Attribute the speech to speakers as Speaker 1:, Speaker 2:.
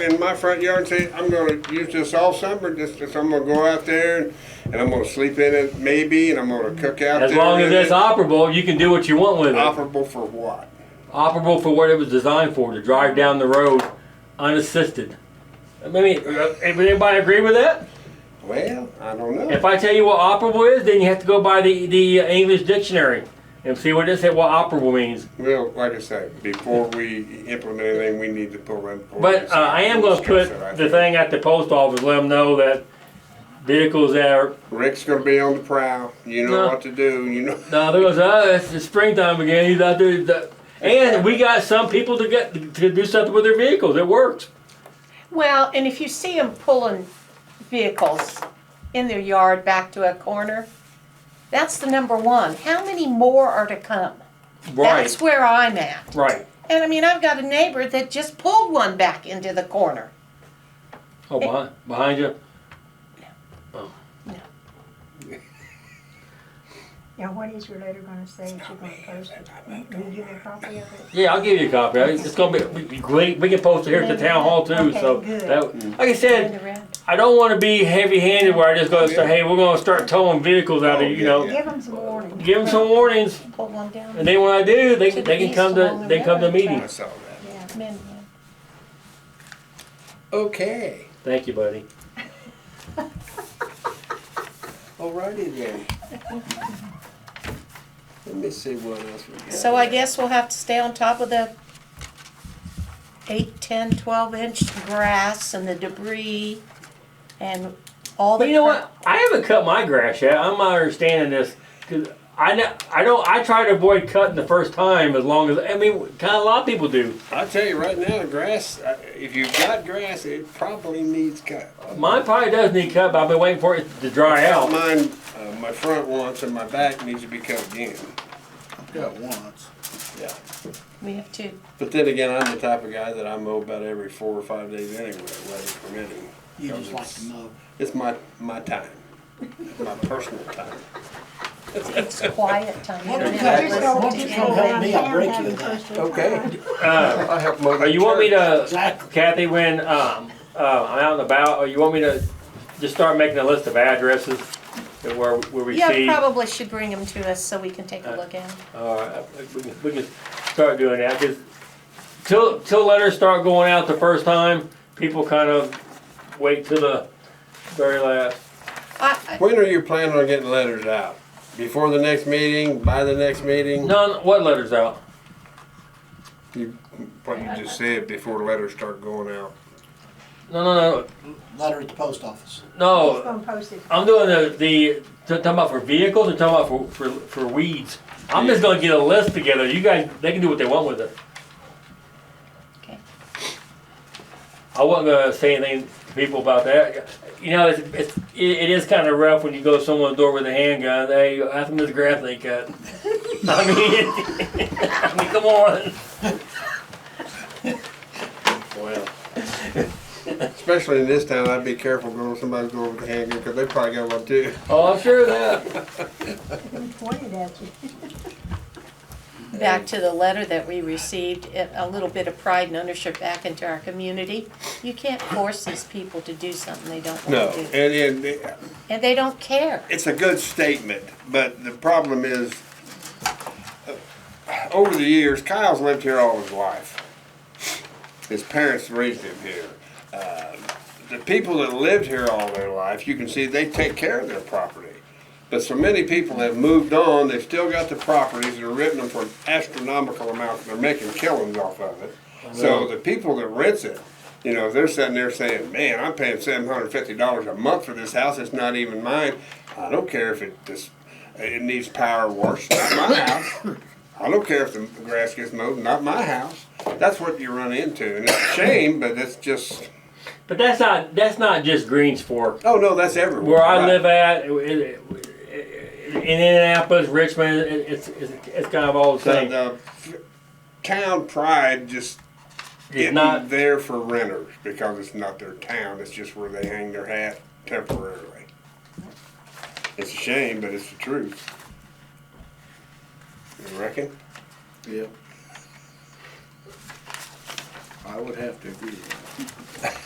Speaker 1: in my front yard and say, I'm gonna use this all summer, just, just I'm gonna go out there and, and I'm gonna sleep in it maybe, and I'm gonna cook out there.
Speaker 2: As long as
Speaker 1: in
Speaker 2: it's
Speaker 1: it."
Speaker 2: operable, you can do what you want with it.
Speaker 1: Operable for what?
Speaker 2: Operable for what it was designed for, to drive down the road unassisted. I mean, uh, anybody agree with that?
Speaker 1: Well, I don't
Speaker 2: If
Speaker 1: know.
Speaker 2: I tell you what operable is, then you have to go by the, the uh, English dictionary and see what it said, what operable means.
Speaker 1: Well, like I say, before we implement anything, we need to pull in. pull
Speaker 2: But
Speaker 1: this
Speaker 2: uh,
Speaker 1: out
Speaker 2: I am
Speaker 1: and
Speaker 2: gonna
Speaker 1: discuss
Speaker 2: put
Speaker 1: it, I
Speaker 2: the
Speaker 1: think.
Speaker 2: thing at the post office, let them know that vehicles that are,
Speaker 1: Rick's gonna be on the prowl, you know
Speaker 2: No.
Speaker 1: what to do, you know.
Speaker 2: no, there goes, uh, it's it's springtime again, he's out there. the- And we got some people to get, to do something with their vehicles, it works.
Speaker 3: Well, and if you see them pulling vehicles in their yard back to a corner, that's the number one. How many more are to come?
Speaker 2: Right,
Speaker 3: That's where I'm at.
Speaker 2: right.
Speaker 3: And I mean, I've got a neighbor that just pulled one back into the corner.
Speaker 2: Oh, behind, behind you?
Speaker 4: Now, what is your letter gonna say that you're gonna post it? Will you give me a copy of it?
Speaker 2: Yeah, I'll give you a copy. I- It's gonna be, we- we, great. we can post it here at the town hall too,
Speaker 4: Okay,
Speaker 2: so.
Speaker 4: good.
Speaker 2: that- Like I
Speaker 3: And the
Speaker 2: said,
Speaker 3: red.
Speaker 2: I don't wanna be heavy-handed where I just go and say, hey, we're gonna start towing vehicles out of, you know.
Speaker 4: Give them some warning.
Speaker 2: Give them some warnings,
Speaker 3: Pulled one down.
Speaker 2: and then when I do, they,
Speaker 3: To the
Speaker 2: they can
Speaker 3: east
Speaker 2: come to,
Speaker 3: along the
Speaker 2: they come to
Speaker 3: railroad
Speaker 1: I
Speaker 2: meetings.
Speaker 1: saw that.
Speaker 4: Yeah.
Speaker 3: Come in, yeah.
Speaker 1: Okay,
Speaker 2: Thank you, buddy.
Speaker 1: alrighty then. Let me see what else we got.
Speaker 3: So I guess we'll have to stay on top of the eight, ten, twelve inch grass and the debris and all the.
Speaker 2: But you know
Speaker 3: cur-
Speaker 2: what? I haven't cut my grass yet. I'm not understanding this, cause I, ne- I don't, I try to avoid cutting the first time as long as, I mean, kinda a lot of people do.
Speaker 1: I tell you right now, grass. uh, If you've got grass, it probably needs cut.
Speaker 2: Mine probably does need cut, but I've been waiting for it to dry out.
Speaker 1: Mine, uh, my front once and my back needs to be cut again.
Speaker 5: Got once.
Speaker 1: Yeah.
Speaker 3: We have two.
Speaker 1: But then again, I'm the type of guy that I mow about every four or five days anyway, weather permitting.
Speaker 5: You just
Speaker 1: Those
Speaker 5: like
Speaker 1: are-
Speaker 5: to mow.
Speaker 1: It's my my time, my personal time.
Speaker 3: It's quiet time. You
Speaker 5: Why
Speaker 3: don't
Speaker 5: don't you
Speaker 3: have to
Speaker 5: just
Speaker 3: listen to
Speaker 4: go to
Speaker 3: it.
Speaker 5: Come help me, I'll break you in that.
Speaker 1: Okay.
Speaker 2: Uh,
Speaker 1: I help mow.
Speaker 2: Or you want me to,
Speaker 5: Exactly.
Speaker 2: Kathy, when um, uh, I'm out and about, or you want me to just start making a list of addresses that where, where we see? Uh,
Speaker 3: Yeah, probably should bring them to us so we can take a look at them.
Speaker 2: All right, we can, we can start doing that, because till, till letters start going out the first time, people kind of wait till the very last.
Speaker 3: I,
Speaker 1: When are you planning on getting letters out? Before the next meeting? By the next meeting?
Speaker 2: None, what letters out?
Speaker 1: You, what you just said before letters start going out.
Speaker 2: No, no,
Speaker 5: Letter at the post office.
Speaker 2: no,
Speaker 4: He's
Speaker 2: no,
Speaker 4: gonna post it.
Speaker 2: I'm doing the, the, talking about for vehicles or talking about for, for, for weeds? I'm just gonna get a list together, you guys, they can do what they want with it.
Speaker 3: Okay.
Speaker 2: I wasn't gonna say anything to people about that. You know, it's, it's it, it is kind of rough when you go to someone's door with a handgun. Hey, how come this grass ain't cut? I mean, I mean, come on.
Speaker 1: Well. Especially in this town, I'd be careful going with somebody's door with a handgun, cause they probably got one too.
Speaker 2: Oh, I'm sure of that.
Speaker 4: We pointed at you.
Speaker 3: back to the letter that we received, it- a little bit of pride and ownership back into our community. You can't force these people to do something they don't
Speaker 1: No,
Speaker 3: want to do.
Speaker 1: and, and
Speaker 3: And they don't care.
Speaker 1: it's a good statement, but the problem is, uh, over the years, Kyle's lived here all his life. His parents raised him here. Uh, The people that lived here all their life, you can see they take care of their property. But so many people have moved on, they've still got the properties and are renting them for astronomical amounts, they're making killings off of it. So the people that rents it, you know, they're sitting there saying, man, I'm paying seven hundred and fifty dollars a month for this house, it's not even mine. I don't care if it just, it needs power wash, it's not my house. I don't care if the grass gets mowed, not my house. That's what you run into, and it's a shame, but it's just,
Speaker 2: But that's not that's not just Greens Fork.
Speaker 1: oh no, that's everywhere.
Speaker 2: Where I
Speaker 1: Right.
Speaker 2: live at, it, it, it, in Indianapolis, Richmond, it, it's, it's it's kind of all the
Speaker 1: The,
Speaker 2: same.
Speaker 1: the f- town pride just
Speaker 2: It's
Speaker 1: isn't
Speaker 2: not
Speaker 1: there for renters because it's not their town. It's just where they hang their hat temporarily. It's a shame, but it's the truth. You reckon?
Speaker 5: Yep. I would have to agree with